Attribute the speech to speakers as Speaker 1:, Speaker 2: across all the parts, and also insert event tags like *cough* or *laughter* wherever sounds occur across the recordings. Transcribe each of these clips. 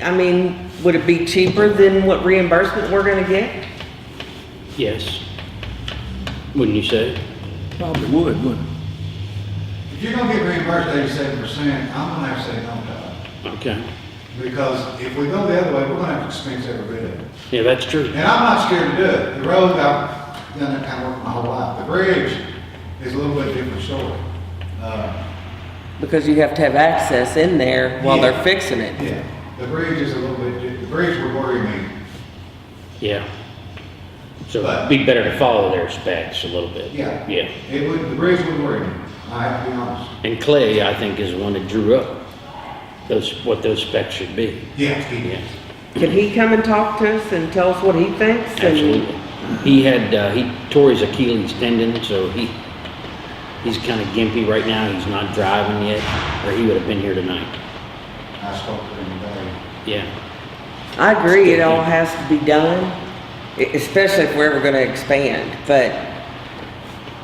Speaker 1: I mean, would it be cheaper than what reimbursement we're gonna get?
Speaker 2: Yes. Wouldn't you say?
Speaker 3: Probably would, wouldn't it?
Speaker 4: If you're gonna get reimbursed eighty-seven percent, I'm gonna have to say no to
Speaker 2: Okay.
Speaker 4: it. Because if we go the other way, we're gonna have to expense every bit of it.
Speaker 2: Yeah, that's true.
Speaker 4: And I'm not scared to do it. The road, I've done that kind of work my whole life. The bridge is a little bit different story. Uh,
Speaker 1: Because you have to have access in there while they're
Speaker 4: Yeah.
Speaker 1: fixing it.
Speaker 4: yeah, the bridge is a little bit, di- the bridge would worry me.
Speaker 2: Yeah. So it'd be better to follow their specs a little bit.
Speaker 4: Yeah.
Speaker 2: Yeah.
Speaker 4: It would, the bridge would worry me. I have to be honest.
Speaker 2: And Clay, I think, is the one that drew up those, what those specs should be.
Speaker 4: Yeah, he
Speaker 2: Yeah,
Speaker 4: did.
Speaker 1: Can he come and talk to us and tell us what he thinks? and-
Speaker 2: absolutely. He had, uh, he tore his Achilles tendon, so he, he's kind of gimpy right now. He's not driving yet, or he would have been here tonight.
Speaker 4: I spoke to him today.
Speaker 2: Yeah.
Speaker 1: I agree, it all has to be done, e- especially if we're ever gonna expand, but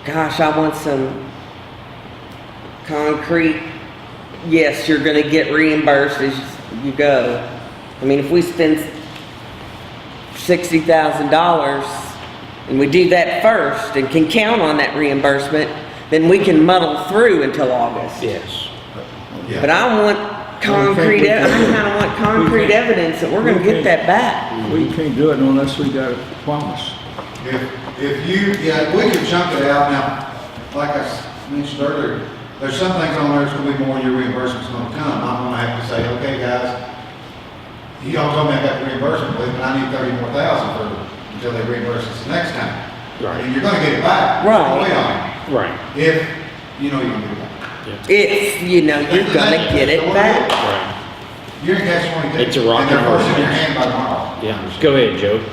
Speaker 1: gosh, I want some concrete, yes, you're gonna get reimbursed as you go. I mean, if we spend sixty thousand dollars and we do that first and can count on that reimbursement, then we can muddle through until August.
Speaker 2: Yes.
Speaker 4: Yeah.
Speaker 1: But I want concrete, ev- I kinda want concrete evidence that we're gonna get that back.
Speaker 3: We can't do it unless we got a promise.
Speaker 4: If, if you, yeah, we can chunk it out now, like I s- mentioned earlier, there's some things on there that's gonna be more your reimbursement's gonna come. I'm gonna have to say, okay, guys, y'all told me I got reimbursement, but I need thirty more thousand for, until they reimburse us the next time.
Speaker 2: Right.
Speaker 4: And you're gonna get it back.
Speaker 1: Right.
Speaker 4: Way on.
Speaker 2: Right.
Speaker 4: If, you know you're gonna get it back.
Speaker 2: Yeah.
Speaker 1: It's, you know, you're gonna get it back.
Speaker 2: Right.
Speaker 4: You're in catch twenty-two.
Speaker 2: It's a rock and
Speaker 4: And they're
Speaker 2: roll
Speaker 4: forcing your
Speaker 2: match.
Speaker 4: hand by tomorrow.
Speaker 2: Yeah. Go ahead, Joe.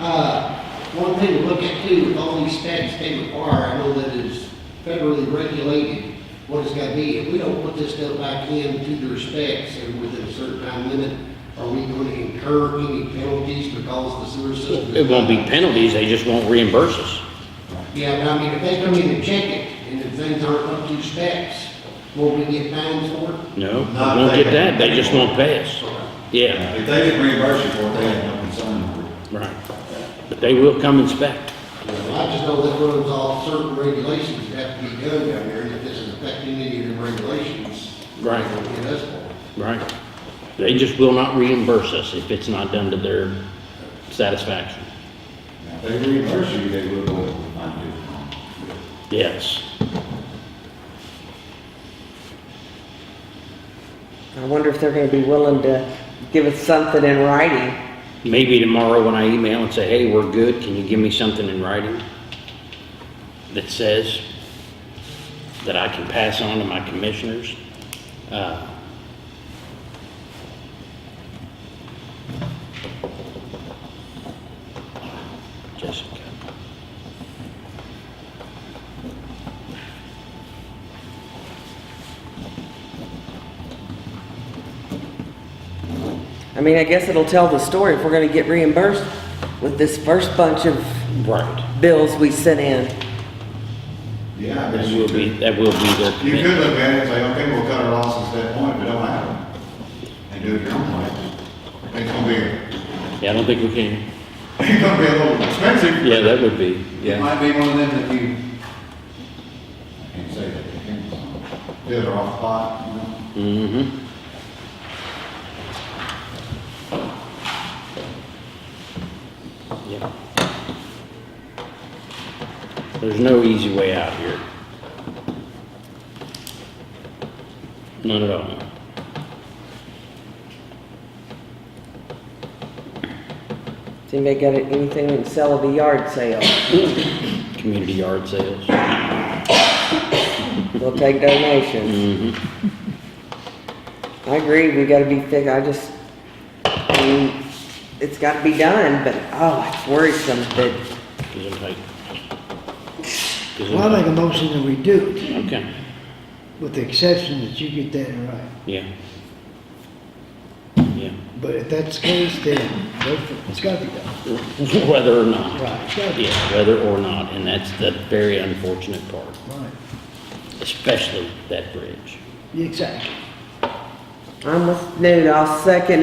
Speaker 5: Uh, One thing to look at too, with all these specs they require, I know that is federally regulated, what it's gotta be. If we don't put this stuff back in to their specs and within a certain time limit, are we going to incur any penalties because the sewer system?
Speaker 2: It won't be penalties, they just won't reimburse us.
Speaker 5: Yeah, but I mean, if they come in and check it and if things aren't up to specs, will we get fines for it?
Speaker 2: No, we
Speaker 4: Not
Speaker 2: won't get
Speaker 4: they-
Speaker 2: that, they just won't pay us. Yeah,
Speaker 4: If they didn't reimburse you for it, they had no concern with it.
Speaker 2: right. But they will come inspect.
Speaker 5: I just know that runs off certain regulations that have to be done down there, and if this is affecting any of the regulations.
Speaker 2: Right.
Speaker 5: It is for.
Speaker 2: Right. They just will not reimburse us if it's not done to their satisfaction.
Speaker 4: Now, if they reimburse you, they will go, I do.
Speaker 2: Yes.
Speaker 1: I wonder if they're gonna be willing to give us something in writing.
Speaker 2: Maybe tomorrow when I email and say, hey, we're good, can you give me something in writing that says that I can pass on to my commissioners? Uh, Jessica.
Speaker 1: I mean, I guess it'll tell the story if we're gonna get reimbursed with this first bunch of
Speaker 2: Right.
Speaker 1: bills we sent in.
Speaker 4: Yeah, I
Speaker 2: That
Speaker 4: guess
Speaker 2: will
Speaker 4: you could.
Speaker 2: be, that will be their
Speaker 4: You
Speaker 2: commitment.
Speaker 4: could look at it and say, okay, we'll cut our losses at that point, but don't have them. And do it your own way. It's gonna be, *laughs*
Speaker 2: Yeah, I don't think we can.
Speaker 4: it's gonna be a little expensive.
Speaker 2: Yeah, that would be,
Speaker 4: It
Speaker 2: yeah.
Speaker 4: might be one of them that you, I can't say that, I can't, do it off spot, you know?
Speaker 2: Mm-hmm. Yeah. There's no easy way out here. None at all.
Speaker 1: Does anybody got anything to sell at a yard sale?
Speaker 2: Community yard sales.
Speaker 1: We'll take donations.
Speaker 2: Mm-hmm.
Speaker 1: I agree, we gotta be thick, I just, I mean, it's gotta be done, but, oh, it's worrisome that,
Speaker 2: Is it tight? Is it
Speaker 6: Well, I make a
Speaker 2: tight?
Speaker 6: motion that we do it,
Speaker 2: Okay,
Speaker 6: with the exception that you get that in writing.
Speaker 2: yeah. Yeah, *laughs*
Speaker 6: But if that's the case, then go for it. it's gotta be done.
Speaker 2: whether or not.
Speaker 6: Right, it's gotta be done.
Speaker 2: Yeah, whether or not, and that's the very unfortunate part,
Speaker 6: Right.
Speaker 2: especially that bridge.
Speaker 6: Exactly.
Speaker 1: I'm with Newt, I'll second it.